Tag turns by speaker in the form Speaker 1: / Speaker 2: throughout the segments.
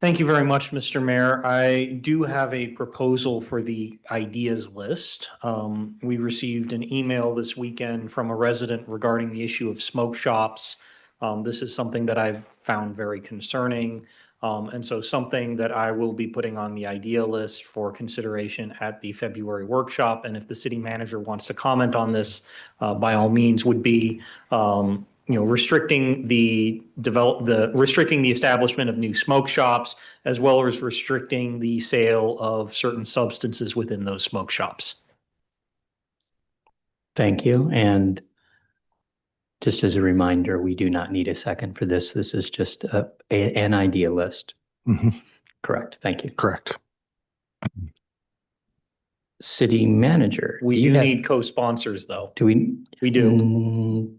Speaker 1: Thank you very much, Mr. Mayor. I do have a proposal for the ideas list. Um, we received an email this weekend from a resident regarding the issue of smoke shops. Um, this is something that I've found very concerning. Um, and so something that I will be putting on the idea list for consideration at the February workshop. And if the city manager wants to comment on this, uh, by all means would be, um, you know, restricting the develop, the restricting the establishment of new smoke shops as well as restricting the sale of certain substances within those smoke shops.
Speaker 2: Thank you. And just as a reminder, we do not need a second for this. This is just a, a- an idea list.
Speaker 3: Mhm.
Speaker 2: Correct. Thank you.
Speaker 3: Correct.
Speaker 2: City manager.
Speaker 1: We
Speaker 2: you
Speaker 1: do
Speaker 2: have-
Speaker 1: need co-sponsors though.
Speaker 2: Do we?
Speaker 1: We do.
Speaker 2: Mm.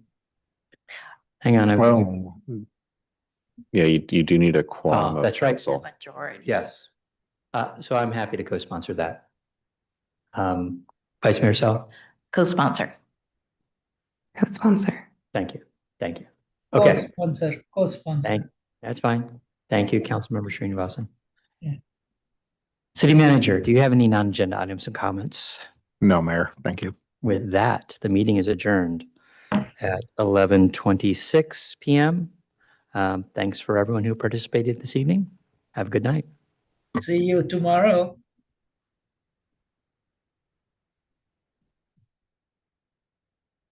Speaker 2: Hang on. I-
Speaker 3: Well,
Speaker 4: Yeah, you, you do need a
Speaker 2: Ah,
Speaker 4: quorum of
Speaker 2: That's right.
Speaker 4: council.
Speaker 5: Majority.
Speaker 2: Yes. Uh, so I'm happy to co-sponsor that. Um, Vice Mayor Sal,
Speaker 5: Co-sponsor.
Speaker 6: Co-sponsor.
Speaker 2: thank you. Thank you. Okay.
Speaker 7: Co-sponsor, co-sponsor.
Speaker 2: Thank, that's fine. Thank you, Councilmember Srinivasan.
Speaker 7: Yeah.
Speaker 2: City Manager, do you have any non-agenda items and comments?
Speaker 3: no, Mayor, thank you.
Speaker 2: With that, the meeting is adjourned at eleven twenty-six PM. Um, thanks for everyone who participated this evening. Have a good night.
Speaker 7: See you tomorrow.